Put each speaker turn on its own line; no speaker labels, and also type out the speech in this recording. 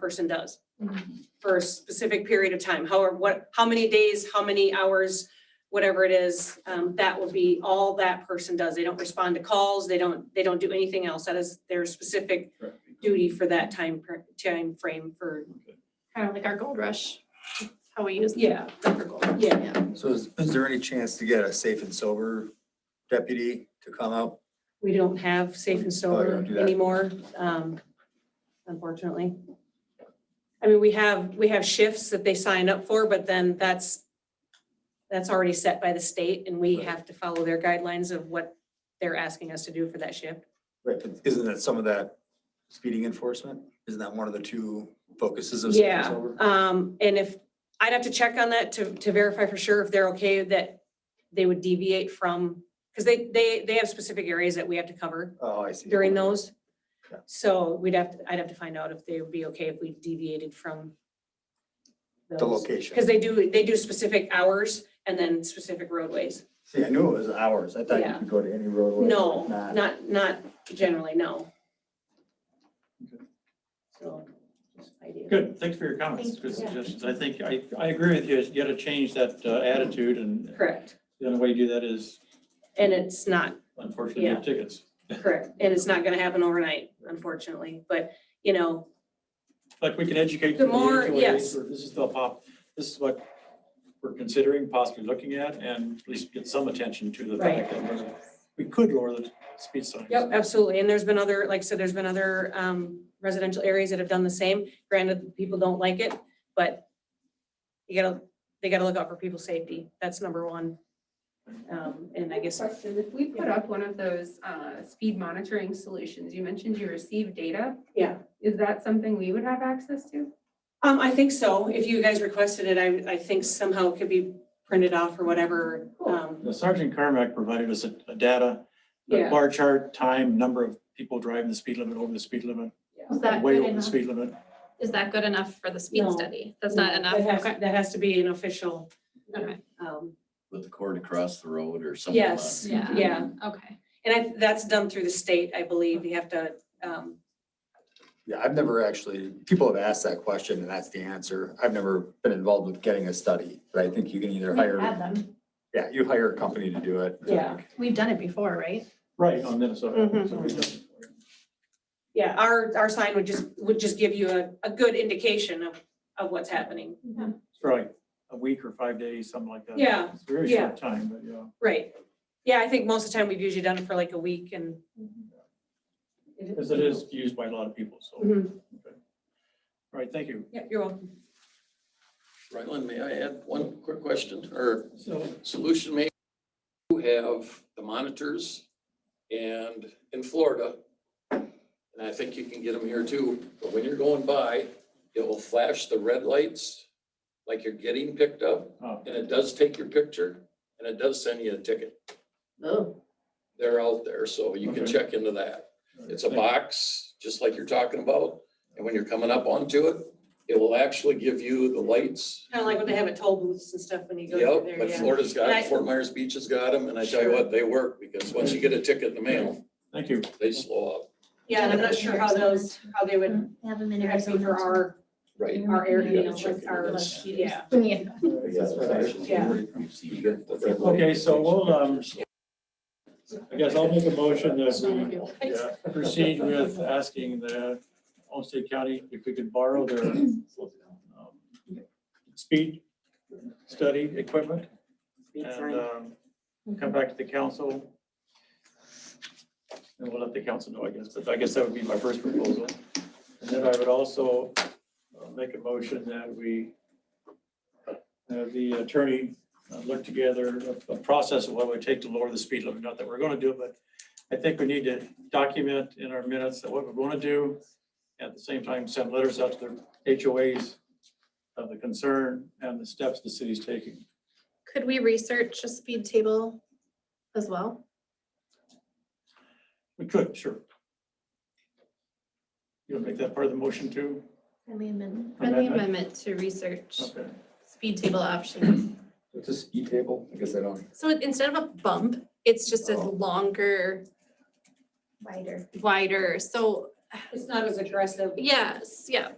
person does
Mhm.
for a specific period of time. However, what, how many days, how many hours, whatever it is, um, that will be all that person does. They don't respond to calls. They don't, they don't do anything else. That is their specific
Correct.
duty for that time, per- time frame for.
Kind of like our gold rush, how we use. them
Yeah.
For gold.
Yeah.
So is, is there any chance to get a safe and sober deputy to come up?
We don't have safe and
Oh, you
sober
don't do that.
anymore, um, unfortunately. I mean, we have, we have shifts that they sign up for, but then that's, that's already set by the state and we
Right.
have to follow their guidelines of what they're asking us to do for that shift.
Right, but isn't that some of that speeding enforcement? Isn't that one of the two focuses of safe and
Yeah,
sober?
um, and if, I'd have to check on that to, to verify for sure if they're okay that they would deviate from, because they, they, they have specific areas that we have to cover.
Oh, I see.
during those.
Yeah.
So we'd have, to- I'd have to find out if they would be okay if we deviated from.
The location.
Because they do, they do specific hours and then specific roadways.
See, I knew it was hours. I thought you
Yeah.
could go to any roadway.
No,
Nah.
not, not generally, no. So. just idea.
Good, thanks for your comments,
Thank
good
you. Yeah.
suggestions. I think, I, I agree with you, you gotta change that uh, attitude, and
Correct,
the only way you do that is
and it's not,
unfortunately
Yeah.
with tickets.
correct, and it's not gonna happen overnight, unfortunately, but, you know,
Like, we can educate.
The
people
more-
either way,
yes.
or This is the pop, this is what we're considering, possibly looking at, and at least get some attention to the fact that we could lower the speed signs.
Yep, absolutely. And there's been other, like I said, there's been other um, residential areas that have done the same. Granted, people don't like it, but you gotta, they gotta look out for people's safety. That's number one. Um, And I guess,
Question, if we put up one of those uh, speed monitoring solutions, you mentioned you receive data,
yeah,
is that something we would have access to?
um, I think so. If you guys requested it, I, I think somehow it could be printed off or whatever. um,
The Sergeant Carmack provided us a, a data, a
Yeah.
bar chart, time, number of people driving the speed limit, over the speed limit,
Is that
way
good
over the
enough?
speed limit.
Is that good enough for the speed
No.
study? That's not enough.
That has,
Okay.
that has to be an official.
Okay.
um,
with the cord across the road or something. like
Yes,
Yeah.
yeah.
Okay.
And I, that's done through the state, I believe. You have to, um,
Yeah, I've never actually, people have asked that question and that's the answer. I've never been involved with getting a study, but I think you can either hire,
them.
yeah, you hire a company to do it.
Yeah.
We've done it before, right?
Right, on Minnesota.
Mhm.
So we've done-
Yeah, our, our sign would just, would just give you a, a good indication of, of what's happening.
It's probably a week or five days, something like that.
Yeah,
It's a very
yeah.
short time, but yeah.
Right. Yeah, I think most of the time we've usually done it for like a week and.
Because it is used by a lot of people, so. All
Mhm.
right, thank you.
Yep, you're welcome.
Ryland, may I add one quick question or
So
solution may you have the monitors and in Florida, and I think you can get them here too, but when you're going by, it will flash the red lights like you're getting picked up
Oh.
and it does take your picture and it does send you a ticket.
Oh.
They're out there, so you can
Okay.
check into that. It's a box, just like you're talking about, and when you're coming up onto it, it will actually give you the lights.
Kind of like when they have at toll booths and stuff when you go through
Yep,
there,
but
yeah.
Florida's
And I-
got, Fort Myers Beach has got them, and I tell you what, they work, because once you get a ticket in the mail,
Thank you.
they slow up.
Yeah, and I'm not sure how those, how they
Mm-hmm.
would,
Have them in
it has to be for
Arizona.
our,
Right.
our area, you
You
know,
gotta check
with our,
into
like,
this.
yeah.
Okay, so we'll, um, I guess I'll make a motion that we
Yeah.
proceed with asking the Olmsted County if we could borrow their um, speed study equipment and um, come back to the council. And we'll let the council know, I guess, but I guess that would be my first proposal. And then I would also uh, make a motion that we have the attorney uh, look together a- a process of what it would take to lower the speed limit, not that we're gonna do it, but I think we need to document in our minutes that what we're gonna do. At the same time, send letters out to the HOAs of the concern and the steps the city's taking.
Could we research a speed table as well?
We could, sure. You'll make that part of the motion too?
Friendly amendment. Friendly
Friendly Amendment.
amendment to research
Okay.
speed table options.
It's a speed table. I guess I don't.
So it- instead of a bump, it's just a
Oh.
longer,
Wider.
wider, so
It's not as aggressive.
yes, yeah.